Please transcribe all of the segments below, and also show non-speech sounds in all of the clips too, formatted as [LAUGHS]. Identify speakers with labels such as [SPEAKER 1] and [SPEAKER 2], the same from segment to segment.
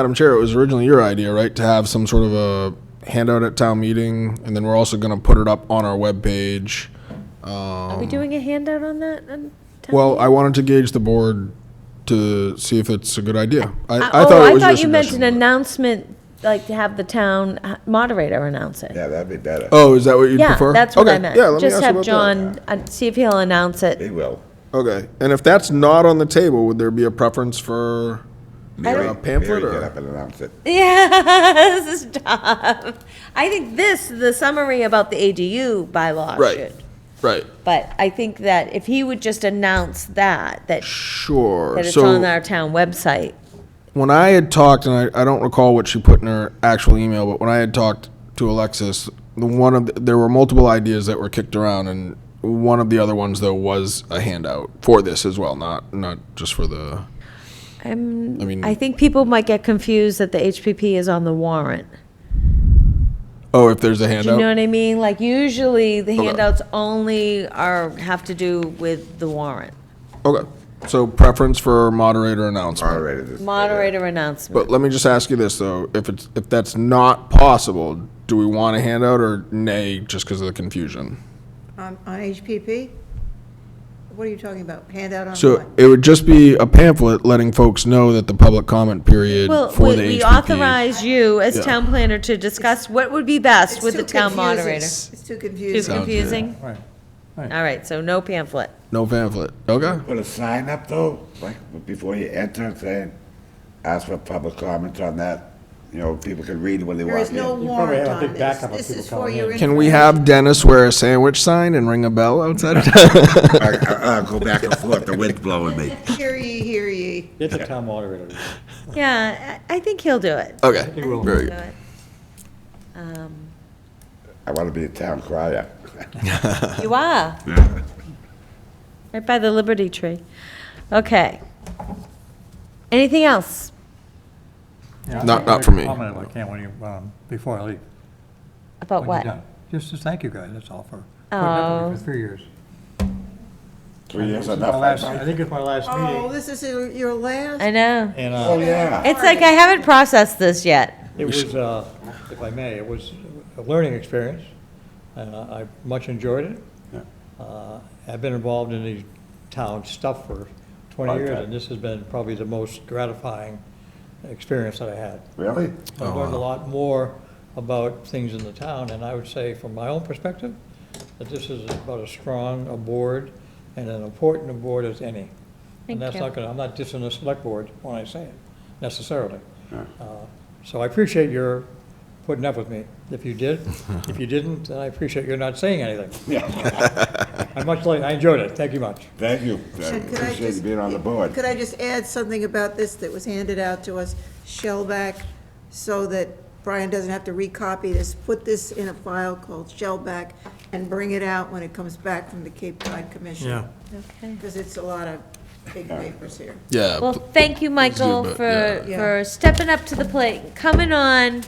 [SPEAKER 1] Madam Chair, it was originally your idea, right, to have some sort of a handout at town meeting, and then we're also gonna put it up on our webpage.
[SPEAKER 2] Are we doing a handout on that? on town
[SPEAKER 1] Um, Well,
[SPEAKER 2] meeting?
[SPEAKER 1] I wanted to gauge the board to see if it's a good idea.
[SPEAKER 2] Uh,
[SPEAKER 1] I, I
[SPEAKER 2] oh,
[SPEAKER 1] thought it was your
[SPEAKER 2] I thought you meant an
[SPEAKER 1] suggestion.
[SPEAKER 2] announcement, like to have the town uh, moderator announce it.
[SPEAKER 3] Yeah, that'd be better.
[SPEAKER 1] Oh, is that what you
[SPEAKER 2] Yeah,
[SPEAKER 1] prefer?
[SPEAKER 2] that's what I
[SPEAKER 1] Okay,
[SPEAKER 2] meant.
[SPEAKER 1] yeah, let me
[SPEAKER 2] Just
[SPEAKER 1] ask you
[SPEAKER 2] have
[SPEAKER 1] about that.
[SPEAKER 2] John, uh, see if he'll announce it. [LAUGHS]
[SPEAKER 3] They will.
[SPEAKER 1] Okay, and if that's not on the table, would there be a preference for
[SPEAKER 2] don't-
[SPEAKER 1] a pamphlet
[SPEAKER 3] Mary get
[SPEAKER 1] or?
[SPEAKER 3] up and announce it.
[SPEAKER 2] Yeah, this is tough. I think this, the summary about the ADU bylaw
[SPEAKER 1] Right.
[SPEAKER 2] should.
[SPEAKER 1] Right,
[SPEAKER 2] But I think that if he would just announce that, that,
[SPEAKER 1] sure.
[SPEAKER 2] that it's
[SPEAKER 1] So-
[SPEAKER 2] on our town website.
[SPEAKER 1] when I had talked, and I, I don't recall what she put in her actual email, but when I had talked to Alexis, the one of the, there were multiple ideas that were kicked around, and one of the other ones though was a handout for this as well, not not just for the.
[SPEAKER 2] I'm,
[SPEAKER 1] I mean,
[SPEAKER 2] I think people might get confused that the HPP is on the warrant.
[SPEAKER 1] oh, if there's a
[SPEAKER 2] Do you
[SPEAKER 1] handout,
[SPEAKER 2] know what I mean? Like usually the handouts only are, have to do with the warrant.
[SPEAKER 1] okay. So preference for moderator announcement.
[SPEAKER 3] Moderator this.
[SPEAKER 2] Moderator announcement.
[SPEAKER 1] But let me just ask you this though: if it's if that's not possible, do we want a handout or nay, just because of the confusion?
[SPEAKER 4] On on HPP? What are you talking about? Handout on
[SPEAKER 1] So
[SPEAKER 4] what?
[SPEAKER 1] it would just be a pamphlet letting folks know that the public comment period
[SPEAKER 2] Well,
[SPEAKER 1] for
[SPEAKER 2] we
[SPEAKER 1] the
[SPEAKER 2] we
[SPEAKER 1] HPP
[SPEAKER 2] authorize you as
[SPEAKER 1] Yeah.
[SPEAKER 2] town planner to discuss what would be best
[SPEAKER 4] It's
[SPEAKER 2] with the
[SPEAKER 4] too
[SPEAKER 2] town
[SPEAKER 4] confusing.
[SPEAKER 2] moderator.
[SPEAKER 4] It's too
[SPEAKER 2] Too
[SPEAKER 4] confusing.
[SPEAKER 1] Sounds good.
[SPEAKER 2] confusing?
[SPEAKER 5] Right. Right.
[SPEAKER 2] All right, so no pamphlet.
[SPEAKER 1] No pamphlet. Okay.
[SPEAKER 3] Put a sign up though, like before you enter, saying, ask for public comment on that. You know, people can read when they
[SPEAKER 4] There
[SPEAKER 3] walk
[SPEAKER 4] is
[SPEAKER 3] in.
[SPEAKER 4] no
[SPEAKER 5] probably
[SPEAKER 4] warrant
[SPEAKER 5] have a
[SPEAKER 4] on
[SPEAKER 5] big
[SPEAKER 4] this.
[SPEAKER 5] backup of
[SPEAKER 4] This
[SPEAKER 5] people
[SPEAKER 4] is for
[SPEAKER 5] coming
[SPEAKER 4] your.
[SPEAKER 5] in.
[SPEAKER 1] Can we have Dennis wear a sandwich sign and ring a bell outside of town?
[SPEAKER 3] I, I, I'll go back and forth, the wind's blowing
[SPEAKER 4] [LAUGHS]
[SPEAKER 3] me.
[SPEAKER 4] information. Hear ye, hear ye.
[SPEAKER 5] It's a town moderator.
[SPEAKER 2] Yeah, I I think he'll do it.
[SPEAKER 1] [LAUGHS] okay.
[SPEAKER 5] will.
[SPEAKER 1] Very
[SPEAKER 2] Do
[SPEAKER 1] good.
[SPEAKER 2] it. Um,
[SPEAKER 3] I wanna be a town crier.
[SPEAKER 2] You are, right by the Liberty Tree. Okay. Anything else?
[SPEAKER 5] Yeah, I
[SPEAKER 1] Not-
[SPEAKER 5] think
[SPEAKER 1] not
[SPEAKER 5] I'll
[SPEAKER 1] for
[SPEAKER 5] make a
[SPEAKER 1] me.
[SPEAKER 5] comment if I can when you, um, before I leave.
[SPEAKER 2] About
[SPEAKER 5] when you're
[SPEAKER 2] what?
[SPEAKER 5] done. Just, just thank you guys, that's all for, putting up with me for three years.
[SPEAKER 3] Three years
[SPEAKER 5] This is my
[SPEAKER 3] enough.
[SPEAKER 5] last-
[SPEAKER 3] I
[SPEAKER 5] I
[SPEAKER 3] think.
[SPEAKER 5] think it's my last
[SPEAKER 4] Oh,
[SPEAKER 5] meeting,
[SPEAKER 4] this is your your last?
[SPEAKER 2] I know.
[SPEAKER 5] and,
[SPEAKER 3] Oh,
[SPEAKER 5] uh,
[SPEAKER 3] yeah.
[SPEAKER 2] It's like I haven't processed this yet.
[SPEAKER 5] it was, uh, if I may, it was a learning experience, and uh, I I much enjoyed it. Uh, I've been involved in the town stuff for twenty years,
[SPEAKER 3] Okay.
[SPEAKER 5] and this has been probably the most gratifying experience that I had.
[SPEAKER 3] Really?
[SPEAKER 5] I learned a lot more about things in the town, and I would say, from my own perspective, that this is about as strong a board and an important a board as any.
[SPEAKER 2] Thank
[SPEAKER 5] And that's
[SPEAKER 2] you.
[SPEAKER 5] not gonna, I'm not dissing the select board when I say it, necessarily. Uh, So I appreciate your putting up with me, if you did. If you didn't, then I appreciate your not saying anything. I much like, I enjoyed it, thank you much.
[SPEAKER 3] [LAUGHS] Thank you. I
[SPEAKER 4] Should- could I
[SPEAKER 3] Appreciate you
[SPEAKER 4] just-
[SPEAKER 3] being on the board.
[SPEAKER 4] Could I just add something about this that was handed out to us, Shellback, so that Brian doesn't have to recopy this? Put this in a file called Shellback and bring it out when it comes back from the Cape Cod Commission.
[SPEAKER 5] Yeah.
[SPEAKER 2] Okay.
[SPEAKER 4] Because it's a lot of big papers here.
[SPEAKER 1] Yeah.
[SPEAKER 2] Well,
[SPEAKER 1] pl-
[SPEAKER 2] thank you, Michael,
[SPEAKER 1] but,
[SPEAKER 2] for,
[SPEAKER 1] yeah.
[SPEAKER 4] Yeah.
[SPEAKER 2] for stepping up to the plate, coming on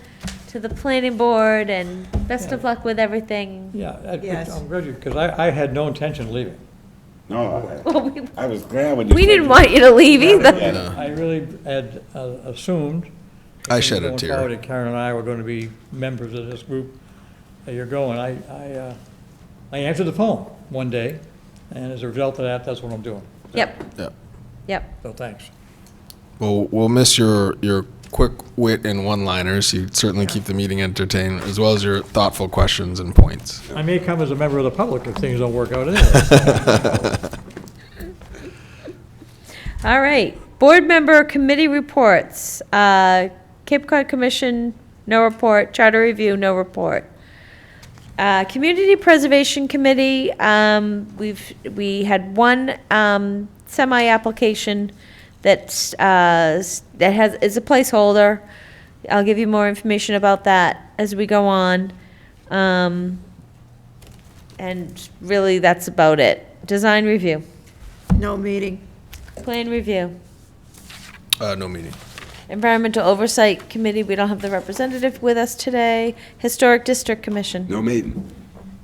[SPEAKER 2] to the planning board, and best of luck with everything.
[SPEAKER 5] Yeah, I-
[SPEAKER 4] Yes.
[SPEAKER 5] I'm glad you, because I, I had no intention of leaving.
[SPEAKER 4] [LAUGHS]
[SPEAKER 3] No,
[SPEAKER 2] Well, we,
[SPEAKER 3] I I was glad when you.
[SPEAKER 2] we
[SPEAKER 3] said
[SPEAKER 2] didn't
[SPEAKER 3] you-
[SPEAKER 2] want you to leave either.
[SPEAKER 5] And I really had uh, assumed.
[SPEAKER 1] I shed a
[SPEAKER 5] going
[SPEAKER 1] tear.
[SPEAKER 5] forward, that Karen and I were going to be members of this group that you're going. I, I, uh, I answered the phone one day, and as a result of that, that's what I'm doing.
[SPEAKER 2] Yep,
[SPEAKER 1] yeah.
[SPEAKER 2] yep.
[SPEAKER 5] So thanks.
[SPEAKER 1] Well, we'll miss your your quick wit and one-liners. You certainly keep the meeting entertained, as well as your thoughtful questions and points.
[SPEAKER 5] I may come as a member of the public if things don't work out anyway.
[SPEAKER 2] All right. Board member committee reports. Uh, Cape Cod Commission, no report. Charter Review, no report. Uh, Community Preservation Committee, um, we've, we had one, um, semi-application that's, uh, s- that has, is a placeholder. I'll give you more information about that as we go on. Um, and really, that's about it. Design review,
[SPEAKER 4] No meeting.
[SPEAKER 2] plan review.
[SPEAKER 1] Uh, no meeting.
[SPEAKER 2] Environmental Oversight Committee, we don't have the representative with us today. Historic District Commission.
[SPEAKER 3] No meeting.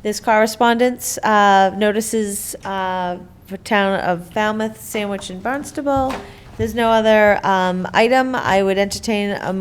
[SPEAKER 2] There's correspondence, uh, notices uh, for town of Falmouth, Sandwich, and Barnstable. There's no other um, item. I would entertain a